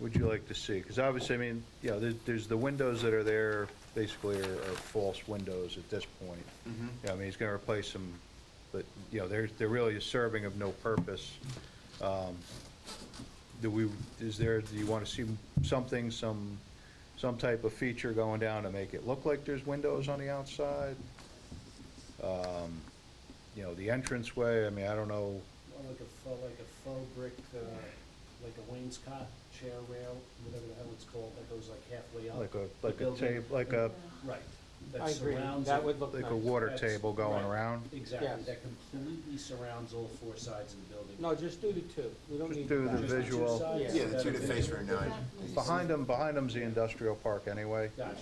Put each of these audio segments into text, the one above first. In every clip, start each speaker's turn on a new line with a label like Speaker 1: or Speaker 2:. Speaker 1: would you like to see? Because obviously, I mean, you know, there- there's the windows that are there, basically are are false windows at this point. Yeah, I mean, he's going to replace them, but, you know, they're, they're really just serving of no purpose. Um, Do we, is there, do you want to see something, some, some type of feature going down to make it look like there's windows on the outside? Um, You know, the entranceway, I mean, I don't know,
Speaker 2: Or like a faux, like a faux brick, uh, like a wainscot, chair rail, whatever the hell it's called, that goes like halfway up.
Speaker 1: like a,
Speaker 2: the
Speaker 1: like a
Speaker 2: building.
Speaker 1: table, like a,
Speaker 2: Right. that
Speaker 3: I agree,
Speaker 2: surrounds
Speaker 3: that
Speaker 2: it.
Speaker 3: would look nice.
Speaker 1: like a water
Speaker 2: That's-
Speaker 1: table going
Speaker 2: right.
Speaker 1: around?
Speaker 2: Exactly,
Speaker 3: Yes.
Speaker 2: that completely surrounds all four sides of the building.
Speaker 3: No, just do the two, we don't
Speaker 1: Just
Speaker 3: need.
Speaker 1: do the
Speaker 3: five.
Speaker 2: Just two
Speaker 1: visual.
Speaker 2: sides?
Speaker 3: Yeah,
Speaker 4: Yeah, the two that face Route 9.
Speaker 1: Behind them, behind them's the industrial park anyway.
Speaker 2: Gotcha,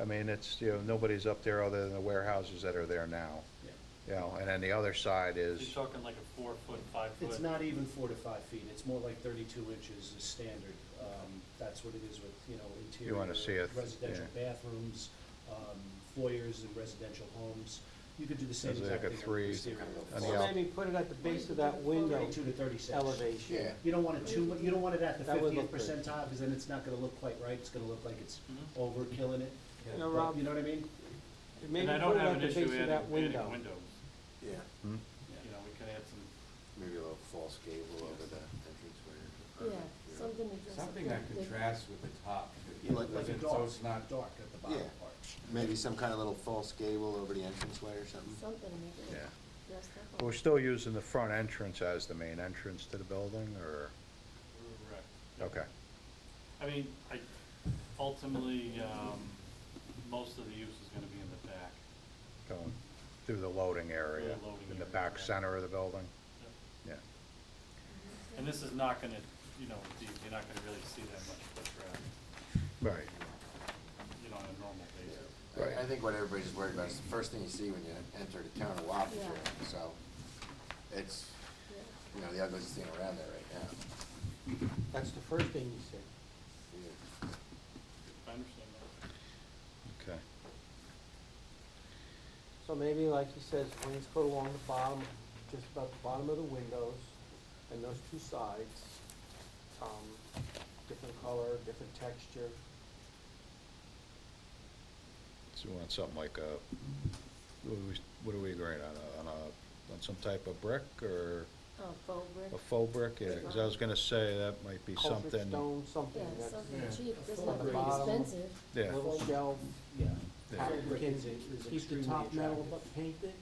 Speaker 1: I mean, it's, you know, nobody's up there other than the warehouses that are there now,
Speaker 2: yeah.
Speaker 1: you know, and then the other side
Speaker 5: You're
Speaker 1: is,
Speaker 5: talking like a four-foot, five-foot.
Speaker 2: It's not even four to five feet, it's more like thirty-two inches is standard. Um, That's what it is with, you know,
Speaker 1: wanna see
Speaker 2: interior,
Speaker 1: it,
Speaker 2: residential bathrooms, um, foyers in residential homes. You could do the same
Speaker 1: It's like
Speaker 2: exact
Speaker 1: a
Speaker 2: thing. on the
Speaker 1: three
Speaker 2: exterior
Speaker 1: on
Speaker 2: walls.
Speaker 1: the
Speaker 3: Or maybe put it at the base of that window
Speaker 2: Thirty-two to thirty-six.
Speaker 3: elevation.
Speaker 4: Yeah.
Speaker 2: You don't want it too, mu- you don't want it at the
Speaker 3: That would
Speaker 2: fiftieth
Speaker 3: look good. Mm-hmm.
Speaker 2: percentile, because then it's not gonna look quite right, it's gonna look like it's
Speaker 5: Mhm.
Speaker 2: overkilling it.
Speaker 3: You know,
Speaker 2: But
Speaker 3: Rob,
Speaker 2: You know what I mean?
Speaker 3: maybe
Speaker 5: And I
Speaker 3: put
Speaker 5: don't
Speaker 3: it
Speaker 5: have
Speaker 3: at
Speaker 5: an
Speaker 3: the
Speaker 5: issue
Speaker 3: base
Speaker 5: adding,
Speaker 3: of that
Speaker 5: adding
Speaker 3: window.
Speaker 5: windows.
Speaker 4: Yeah,
Speaker 1: Hmm?
Speaker 5: You know, we could add some,
Speaker 4: maybe a little false gable over the entranceway. or-
Speaker 6: Yeah, something to dress up.
Speaker 7: Something that
Speaker 6: with.
Speaker 7: contrasts with the top,
Speaker 4: Yeah, like-
Speaker 2: Like
Speaker 7: so
Speaker 2: a
Speaker 7: it's
Speaker 2: dark,
Speaker 7: not-
Speaker 2: dark at the bottom
Speaker 4: Yeah.
Speaker 2: part.
Speaker 4: Maybe some kind of little false gable over the entranceway or something.
Speaker 6: Something to make it
Speaker 1: yeah.
Speaker 6: dressed up.
Speaker 1: We're still using the front entrance as the main entrance to the building, or,
Speaker 5: correct.
Speaker 1: okay,
Speaker 5: I mean, I, ultimately, um, most of the use is gonna be in the back.
Speaker 1: going through the loading area,
Speaker 5: Through the loading
Speaker 1: in the
Speaker 5: area,
Speaker 1: back
Speaker 5: yeah.
Speaker 1: center of the building, yeah.
Speaker 5: And this is not gonna, you know, be- you're not gonna really see that much foot traffic,
Speaker 1: Right,
Speaker 5: you know, on a normal basis.
Speaker 1: Right.
Speaker 4: I- I think what everybody's worried about is the first thing you see when you enter the town of Wappinger,
Speaker 6: Yeah.
Speaker 4: so it's,
Speaker 6: Yeah.
Speaker 4: you know, the ugliest thing around there right now.
Speaker 3: That's the first thing you said.
Speaker 4: Yeah.
Speaker 5: I understand that.
Speaker 1: okay.
Speaker 3: So maybe, like he says, wainscot along the bottom, just about the bottom of the windows, and those two sides, um, different color, different texture.
Speaker 1: So we want something like a, what are we, what are we agreeing on, a- on a, on some type of brick, or
Speaker 6: Oh, faux brick.
Speaker 1: a faux brick? Yeah, because I was gonna say that might be
Speaker 3: Culvert
Speaker 1: something.
Speaker 3: stone, something
Speaker 6: Yeah,
Speaker 3: that's
Speaker 6: something
Speaker 7: yeah.
Speaker 6: cheap, doesn't
Speaker 2: On
Speaker 6: have
Speaker 2: the
Speaker 6: to be
Speaker 3: bottom.
Speaker 6: expensive.
Speaker 1: Yeah,
Speaker 3: little shelf,
Speaker 2: Yeah.
Speaker 1: Yeah.
Speaker 3: pattern
Speaker 2: Brick is-
Speaker 3: Kinsey,
Speaker 2: is
Speaker 3: keep the
Speaker 2: extremely
Speaker 3: top metal
Speaker 2: attractive.
Speaker 3: but painted.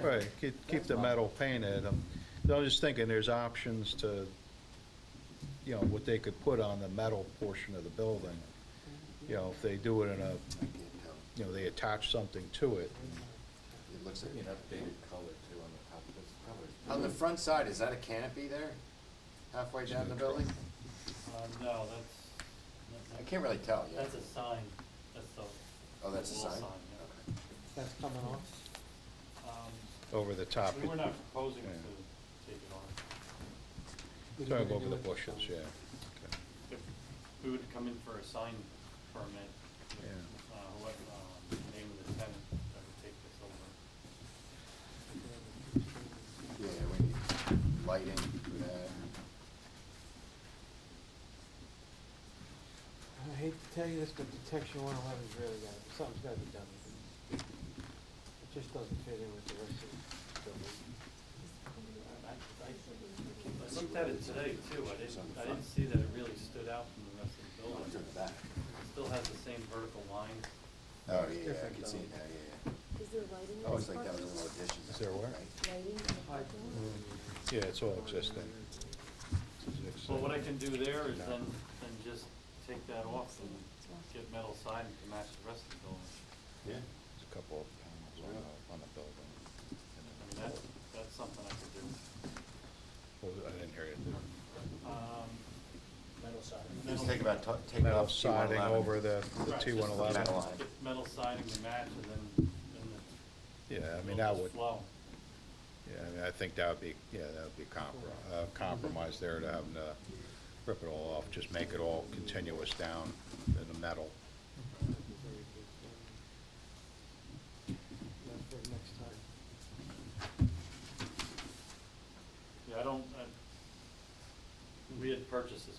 Speaker 1: right, keep, keep the metal painted, I'm, I'm just thinking there's options to, you know, what they could put on the metal portion of the building. You know, if they do it in a,
Speaker 4: I can't tell.
Speaker 1: you know, they attach something to it,
Speaker 4: It looks
Speaker 7: Maybe an
Speaker 4: like,
Speaker 7: updated color too on the top, that's probably.
Speaker 4: on the front side, is that a canopy there halfway down the building?
Speaker 5: Uh, no, that's,
Speaker 4: I
Speaker 5: that's,
Speaker 4: can't really tell, yeah.
Speaker 5: that's a sign, that's the.
Speaker 4: Oh, that's a
Speaker 5: wall
Speaker 4: sign?
Speaker 5: yeah.
Speaker 4: Okay.
Speaker 3: That's coming off.
Speaker 5: Um,
Speaker 1: over the top.
Speaker 5: We were not proposing
Speaker 1: Yeah.
Speaker 5: to take it on.
Speaker 3: We're
Speaker 1: Trying to go
Speaker 3: gonna
Speaker 1: over
Speaker 3: do
Speaker 1: the
Speaker 3: it.
Speaker 1: bushes, yeah. Okay.
Speaker 5: if we would come in for a sign permit,
Speaker 1: Yeah.
Speaker 5: uh, what, um, the name of the tenant that would take this over.
Speaker 4: Yeah, we need lighting for that.
Speaker 3: I hate to tell you this, but detection one eleven's really got, to something's gotta be done with it. It just doesn't fit in with the rest of the building.
Speaker 5: I, I I looked at it today too, I didn't, I didn't see that it really stood out from the rest of the
Speaker 4: Oh, it's in
Speaker 5: building.
Speaker 4: the back.
Speaker 5: It still has the same vertical lines.
Speaker 4: Oh, yeah, yeah, I
Speaker 3: Different
Speaker 4: can see it now, yeah,
Speaker 6: Is there lighting? in
Speaker 4: yeah. Always
Speaker 6: this
Speaker 4: like that
Speaker 6: park?
Speaker 4: with little additions.
Speaker 1: Is there where?
Speaker 6: Lighting in the parking lot?
Speaker 3: Mm.
Speaker 1: Yeah, it's all existing. It's
Speaker 5: Well,
Speaker 1: existing.
Speaker 5: what I can do there is then, then just take that off and get metal siding to match the rest of the building.
Speaker 4: Yeah.
Speaker 1: There's a couple of panels on the, on the building. and
Speaker 5: I mean,
Speaker 1: then-
Speaker 5: that's, that's something I could do.
Speaker 1: What was- Oh, I didn't hear you.
Speaker 5: Um,
Speaker 2: Metal side.
Speaker 4: Just take about, to- take
Speaker 1: Metal
Speaker 4: off two one
Speaker 1: siding
Speaker 4: eleven.
Speaker 1: over the, the
Speaker 5: right,
Speaker 1: T one
Speaker 5: just
Speaker 1: eleven.
Speaker 4: metal.
Speaker 5: Get metal siding to match and then, then
Speaker 1: Yeah, I
Speaker 5: the.
Speaker 1: mean, that
Speaker 5: it'll
Speaker 1: would,
Speaker 5: just Flow.
Speaker 1: yeah, I mean, I think that would be, yeah, that would be compro- uh, compromise there to having to rip it all off, just make it all continuous down in the metal.
Speaker 3: Very good. That's for next time.
Speaker 5: Yeah, I don't, I, we had purchased this